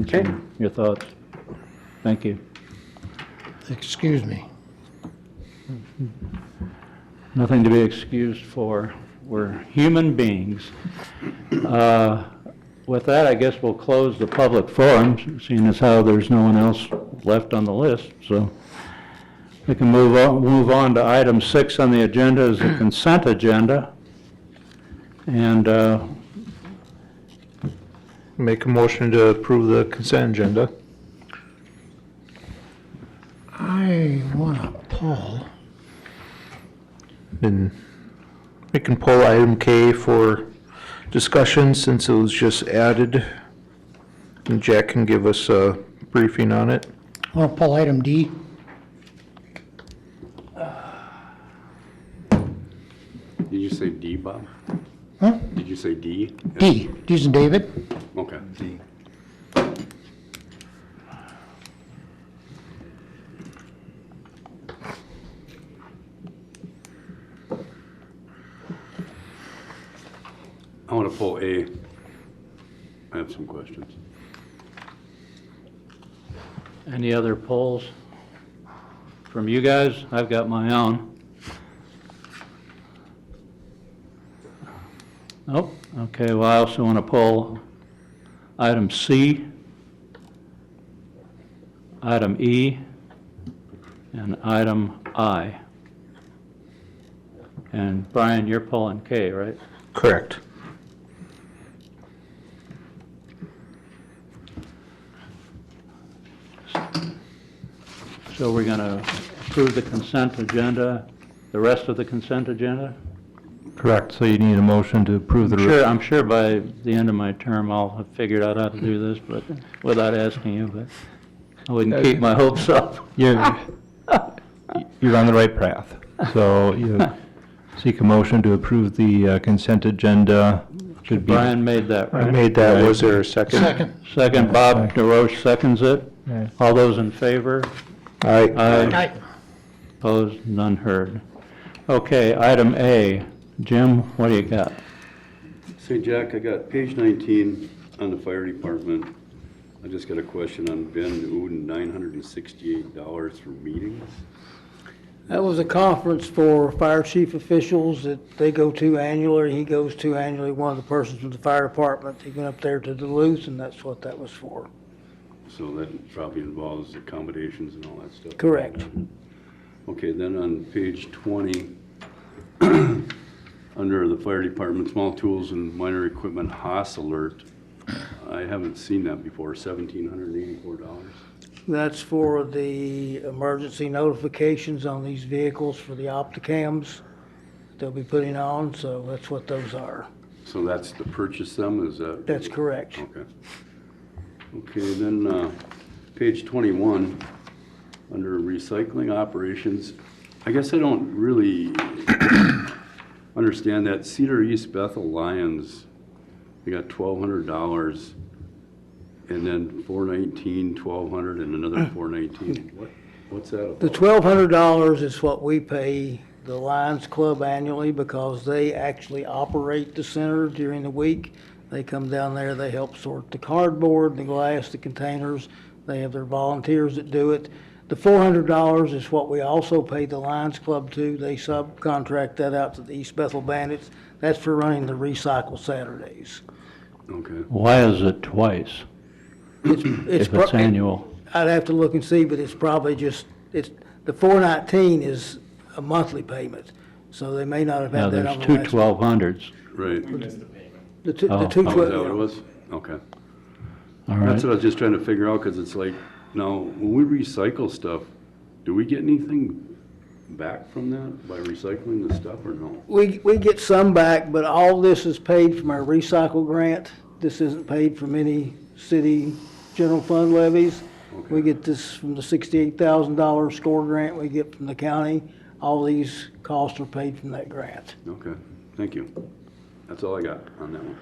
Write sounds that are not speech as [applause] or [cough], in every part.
Okay, your thoughts? Thank you. Excuse me. Nothing to be excused for. We're human beings. Uh, With that, I guess we'll close the public forum, seeing as how there's no one else left on the list, so we can move on, move on to item six on the agenda is the consent agenda. And uh, Make a motion to approve the consent agenda. I want to pull. And we can pull item K for discussion since it was just added. And Jack can give us a briefing on it. I want to pull item D. Did you say D, Bob? Huh? Did you say D? D. D's and David. Okay. D. I want to pull A. I have some questions. any other polls from you guys? I've got my own. Nope, okay, well, I also want to pull item C, item E, and item I. And Brian, you're pulling K, right? Correct. So we're going to approve the consent agenda, the rest of the consent agenda? Correct, so you need a motion to approve the... Sure, I'm sure by the end of my term, I'll have figured out how to do this, but without asking you, but I wouldn't keep my hopes up. You're, you're on the right path. So you seek a motion to approve the uh, consent agenda. Should be Brian made that, I right? made that. Was there a second? Second. Second, Bob DeRoche seconds it. Yeah. All those in favor? Aye. Aye. Opposed, none heard. Okay, item A. Jim, what do you got? Say, Jack, I got page 19 on the fire department. I just got a question on Ben Uden, $968 for meetings. That was a conference for fire chief officials that they go to annually, he goes to annually, one of the persons from the fire department, he went up there to Duluth, and that's what that was for. So that probably involves accommodations and all that stuff. Correct. Okay, then on page 20, [clears throat] under the fire department, small tools and minor equipment, Haas alert. I haven't seen that before, $1,784. That's for the emergency notifications on these vehicles for the opticams they'll be putting on, so that's what those are. So that's to purchase them, is that? That's correct. Okay. Okay, then, uh, page 21, under recycling operations, I guess I don't really understand that Cedar East Bethel Lions, they got $1,200, and then 419, 1,200, and another 419. What? What's that The about? twelve hundred dollars is what we pay the Lions Club annually because they actually operate the center during the week. They come down there, they help sort the cardboard, the glass, the containers. They have their volunteers that do it. The four hundred dollars is what we also pay the Lions Club to. They subcontract that out to the East Bethel Bandits. That's for running the recycle Saturdays. Okay, Why is it twice if it's pro- annual? I'd have to look and see, but it's probably just, it's, the four nineteen is a monthly payment, so they may not have Now, had that there's on the two last. 1200s. right. The two, Oh. the two Oh, is that what it twelve, was? Okay. All right. That's what I was just trying to figure out, because it's like, now, when we recycle stuff, do we get anything back from that by recycling the stuff or no? we, we get some back, but all this is paid from our recycle grant. This isn't paid from any city general fund levies. We Okay. get this from the sixty-eight thousand dollar score grant we get from the county. All these costs are paid from that grant. Okay, thank you. That's all I got on that one.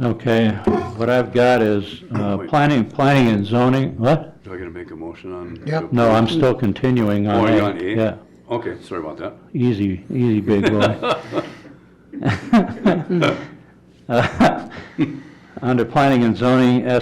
Okay, what I've got is uh, planning, planning and zoning, what? Do I gotta make a motion on? Yep. No, I'm still continuing Oh, on A. you're on A? Yeah, Okay, sorry about that. easy, easy, big [laughs] boy. [laughs] [laughs] Uh, Under planning and zoning,